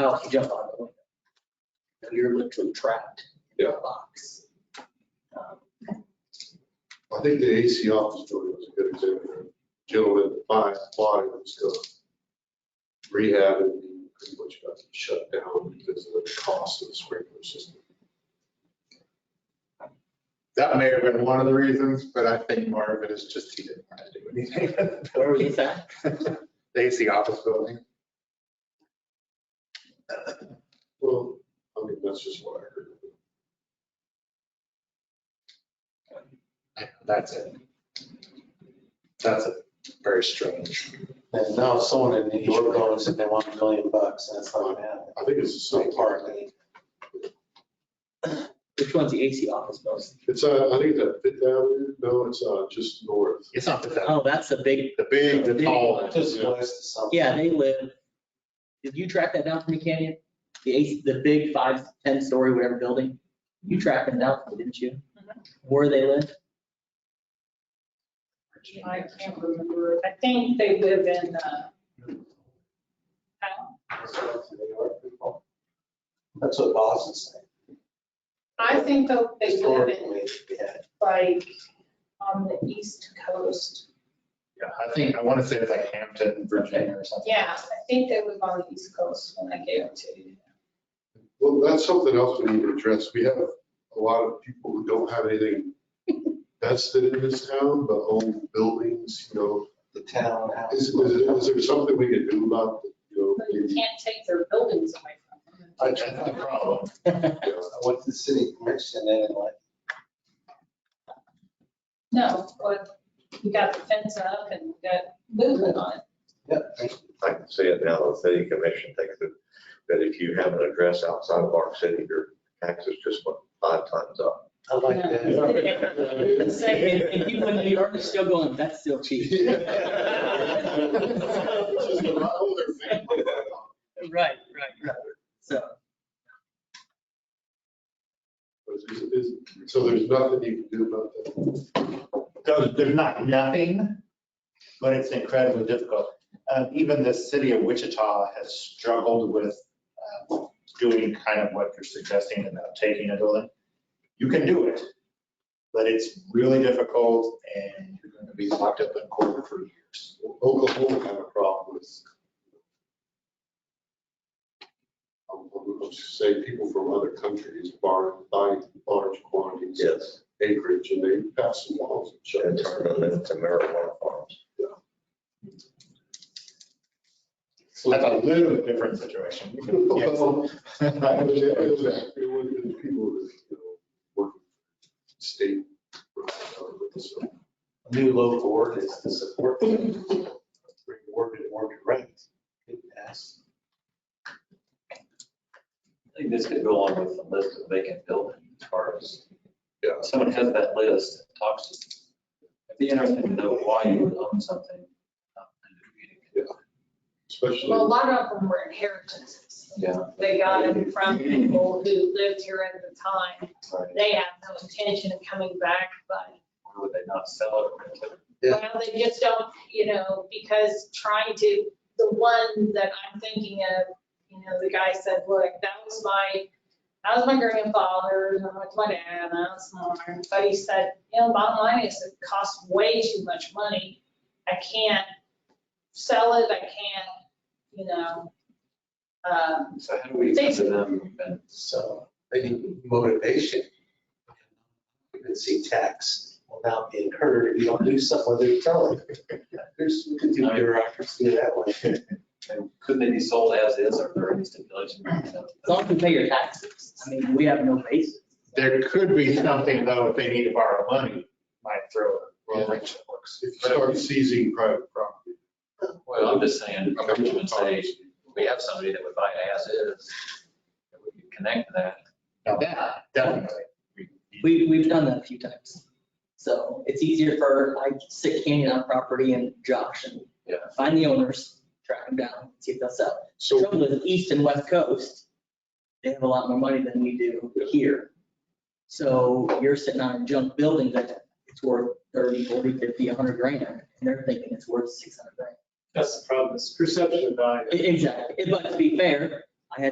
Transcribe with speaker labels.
Speaker 1: else to jump out the window. So You're literally trapped in a box. Um,
Speaker 2: I think the AC office building was a good example. Gentleman, my body was still rehab and pretty much got shut down because of the cost of the sprinkler system.
Speaker 3: That may have been one of the reasons, but I think more of it is just he didn't want to do anything.
Speaker 1: Where was this at?
Speaker 3: The AC office building.
Speaker 2: Well, I mean, that's just what I heard.
Speaker 3: That's it. That's a very strange.
Speaker 4: And now someone in New York owns it, they want a million bucks, and it's not gonna happen.
Speaker 2: I think it's the same part.
Speaker 1: Which one's the AC office most?
Speaker 2: It's, uh, I think that Fifth Avenue, no, it's, uh, just north.
Speaker 3: It's not that, that-
Speaker 1: Oh, that's the big,
Speaker 3: the big, the tall one.
Speaker 4: Just list something.
Speaker 1: yeah, they live, did you track that down for me, Canyon? The AC, the big five, 10-story, whatever building? You tracked them down, for me, didn't you? Where they live?
Speaker 5: I can't remember. I think they live in, uh,
Speaker 4: That's what Boston's saying.
Speaker 5: I think though they live in
Speaker 4: Historically, they had
Speaker 5: like on the east coast.
Speaker 3: Yeah, I think, I want to say it's like Hampton, Virginia or something.
Speaker 5: Yeah, I think they live on the east coast when I gave it to you.
Speaker 2: Well, that's something else we need to address. We have a lot of people who don't have anything vested in this town, but own buildings, you know.
Speaker 4: The townhouse.
Speaker 2: Is, is is there something we can do about, you know,
Speaker 5: But you
Speaker 2: maybe,
Speaker 5: can't take their buildings away from them.
Speaker 3: I- That's the problem.
Speaker 2: you know,
Speaker 4: What's the city commission in it like?
Speaker 5: No, but you got the fence up and you got movement on it.
Speaker 4: Yeah,
Speaker 6: I can see it now, the city commission thinks that, that if you have an address outside of our city, your taxes just went five times up.
Speaker 4: I like that.
Speaker 5: The
Speaker 1: And,
Speaker 5: same-
Speaker 1: and people in New York are still going, that's still cheap.
Speaker 2: uh, This is a lot older family.
Speaker 1: Right, right, right. So,
Speaker 2: Is- is- So there's nothing you can do about that.
Speaker 3: There's, there's not nothing, but it's incredibly difficult. Uh, even the city of Wichita has struggled with uh, doing kind of what you're suggesting about taking a building. You can do it, but it's really difficult and you're going to be locked up in court for years.
Speaker 2: Oklahoma had a problem with. I'm going to say people from other countries bar, buying large quantities of
Speaker 6: Yes,
Speaker 2: acreage and they pass some laws and shut
Speaker 6: and
Speaker 2: it down.
Speaker 6: turn them into marijuana farms.
Speaker 2: So
Speaker 3: That's a
Speaker 2: that-
Speaker 3: little bit different situation.
Speaker 2: Well, I mean, It was
Speaker 3: Yes.
Speaker 2: actually one of the people that, you know, work state. government, so
Speaker 4: New local ordinance to support them. Rewarded, rewarded rights. Good pass.
Speaker 7: I think this could go along with the list of vacant buildings as far as,
Speaker 2: Yeah.
Speaker 7: if someone has that list and talks to them. It'd be interesting to know why you would own something. um, and if you
Speaker 2: Especially.
Speaker 5: Well, a lot of them were inheritances.
Speaker 7: Yeah.
Speaker 5: They got it from people who lived here at the time.
Speaker 7: could-
Speaker 5: They have no intention of coming back, but
Speaker 7: Or would they not sell it or rent it?
Speaker 5: Well, they just don't, you know, because trying to, the one that I'm thinking of, you know, the guy said, look, that was my, that was my grandfather, and that was my dad, and that was mine. But he said, you know, bottom line is it costs way too much money. I can't sell it, I can't, you know. um,
Speaker 7: So how do we come to them and
Speaker 4: So they need motivation. You can see tax will now be incurred if you don't do something they're telling. There's, we could do bureaucracy that way.
Speaker 7: and could they be sold as is or are there any stipulations?
Speaker 1: as long as you pay your taxes, I mean, we have no basis.
Speaker 3: There could be something though, if they need to borrow money, might throw a wrench in the works.
Speaker 2: If you start seizing private property.
Speaker 7: Well, I'm just saying,
Speaker 2: I
Speaker 7: I
Speaker 2: mean,
Speaker 7: would say, if we have somebody that would buy it as is, that we could connect to that.
Speaker 3: Now that, definitely.
Speaker 1: We, we've done that a few times. So it's easier for, I sit Canyon on property and Josh and
Speaker 7: Yeah.
Speaker 1: find the owners, track them down, see if they'll sell.
Speaker 2: So
Speaker 1: Trouble is, east and west coast, they have a lot more money than we do here. So you're sitting on a junk building that it's worth 30, 40, 50, 100 grand, and they're thinking it's worth 600 grand.
Speaker 8: That's the problem, it's perception of value.
Speaker 1: E- Exactly. But to be fair,